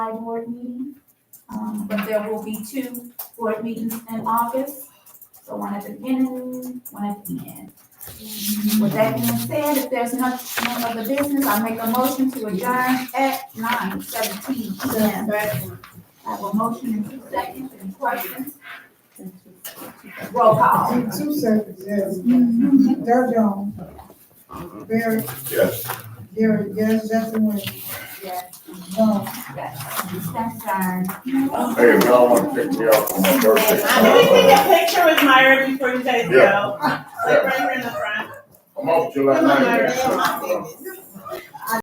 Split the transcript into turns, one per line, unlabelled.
board meeting. Um, but there will be two board meetings in August, so one at the beginning, one at the end. With that being said, if there's no, none other business, I make a motion to adjourn at nine seventeen P M. I have a motion in two seconds, any questions? Roll call.
In two seconds, yes. Doug Jones. Barry,
Yes.
Gary, yes, Justin Wayne,
Yes,
John.
yes, we stand adjourned.
Hey, if y'all wanna pick me up on my birthday.
Can we take a picture with Myra before you guys
Yeah.
go? Like right here in the front.
I'm off July
Come on,
ninth.
Myra.